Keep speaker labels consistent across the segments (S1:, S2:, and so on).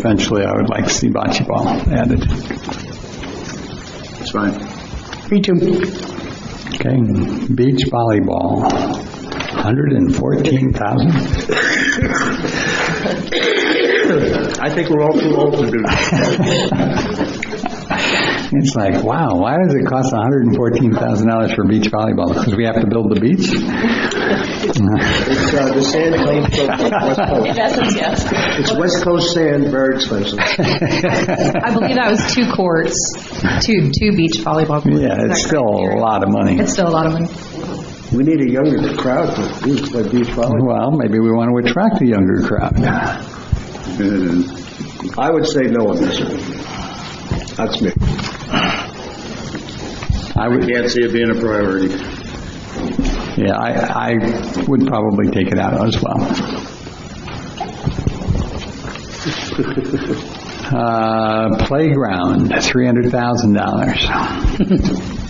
S1: Eventually, I would like to see bocce ball added.
S2: That's fine.
S3: Me too.
S1: Okay, beach volleyball, 114,000?
S2: I think we're all too old to do that.
S1: It's like, wow, why does it cost $114,000 for beach volleyball? Because we have to build the beach?
S2: It's uh, the sand claim from West Coast.
S4: In essence, yes.
S2: It's West Coast Sand Birds, Leslie.
S4: I believe that was two courts, two, two beach volleyball courts.
S1: Yeah, it's still a lot of money.
S4: It's still a lot of money.
S2: We need a younger crowd to do- to be following.
S1: Well, maybe we want to attract a younger crowd.
S2: I would say no on this one. That's me.
S1: I would,
S2: Can't see it being a priority.
S1: yeah, I, I would probably take it out as well. Uh, playground, $300,000.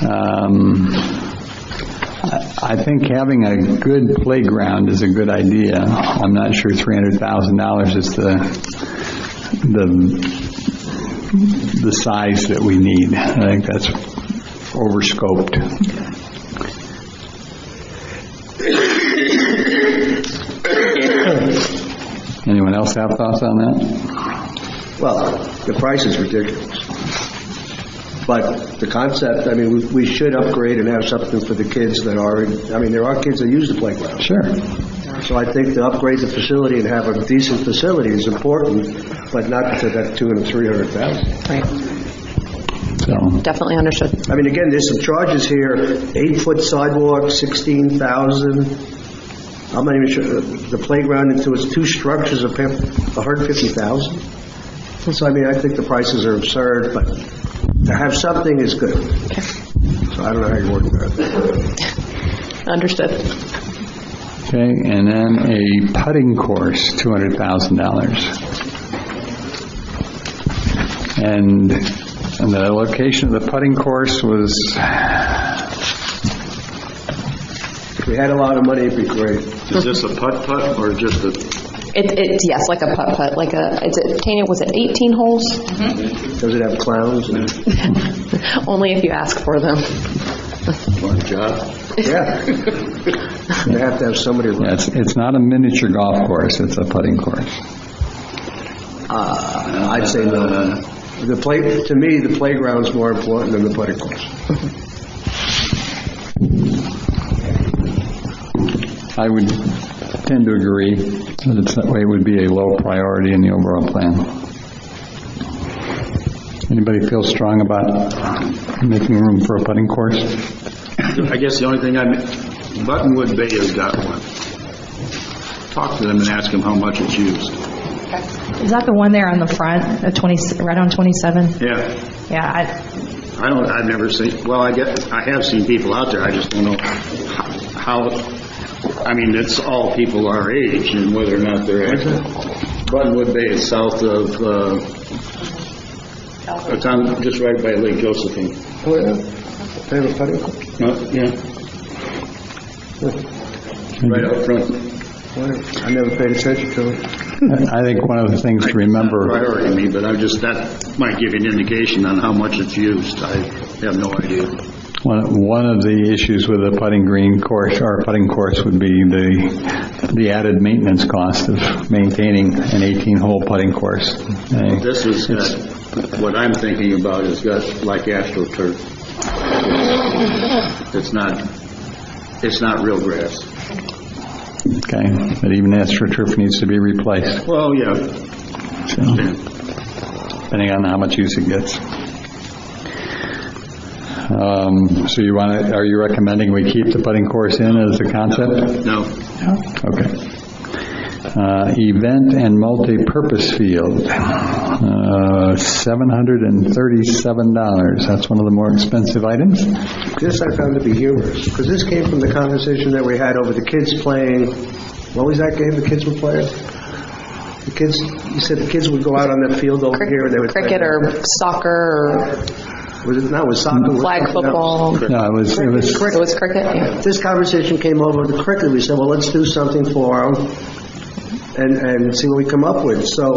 S1: Um, I- I think having a good playground is a good idea. I'm not sure $300,000 is the, the, the size that we need. I think that's overscoped. Anyone else have thoughts on that?
S2: Well, the price is ridiculous. But the concept, I mean, we- we should upgrade and have something for the kids that are, I mean, there are kids that use the playground.
S1: Sure.
S2: So I think to upgrade the facility and have a decent facility is important, but not to that two and three hundred thousand.
S3: Right,
S1: So,
S3: definitely understood.
S2: I mean, again, there's some charges here, eight-foot sidewalk, sixteen thousand. I'm not even sure, uh, the playground into its two structures, a hundred fifty thousand. So I mean, I think the prices are absurd, but to have something is good. So I don't know how you work that.
S3: Understood.
S1: okay, and then a putting course, $200,000. And and the location of the putting course was,
S2: If we had a lot of money, it'd be great.
S5: Is this a putt-putt or just a,
S3: It, it's, yes, like a putt-putt, like a, it's, a- Tanya, was it 18 holes?
S2: Does it have clowns? and-
S4: Mm-hmm.
S3: Only if you ask for them.
S5: one job?
S2: Yeah. They have to have somebody.
S1: yeah, it's it's not a miniature golf course, it's a putting course.
S2: Uh, I'd say no. The play, to me, the playground's more important than the putting course.
S1: I would tend to agree that it's, that way it would be a low priority in the overall plan. Anybody feel strong about making room for a putting course?
S5: I guess the only thing I'm, Buttonwood Bay has got one. Talk to them and ask them how much it's used.
S4: Is that the one there on the front, of 20, right on 27?
S5: Yeah,
S4: Yeah, I,
S5: I don't, I've never seen, well, I get, I have seen people out there, I just don't know how, I mean, it's all people our age and whether or not they're active. Buttonwood Bay is south of, uh, it's on, just right by Lake Josephine.
S2: They have a putting course?
S5: Uh, Yeah. Right up front.
S2: Whatever. I never paid attention to it.
S1: I think one of the things to remember.
S5: priority to me, but I'm just, that might give you an indication on how much it's used. I have no idea.
S1: One, one of the issues with a putting green course, or a putting course, would be the, the added maintenance cost of maintaining an 18-hole putting course. Uh,
S5: This has got, what I'm thinking about has got like AstroTurf. It's not, it's not real grass.
S1: Okay, but even AstroTurf needs to be replaced,
S5: Well, yeah.
S1: so, depending on how much use it gets. Um, So you want to, are you recommending we keep the putting course in as a concept?
S5: No,
S1: Okay. Uh, Event and multi-purpose field, uh, $737. That's one of the more expensive items.
S2: This I found to be humorous, because this came from the conversation that we had over the kids playing, what was that game the kids were playing? The kids, you said the kids would go out on that field over here and they would. play-
S3: Cricket or soccer
S2: Was it, no, it was soccer.
S3: or flag football. It
S1: No, it was, it was,
S3: was cricket, yeah.
S2: This conversation came over the cricket, we said, well, let's do something for our own and, and see what we come up with. So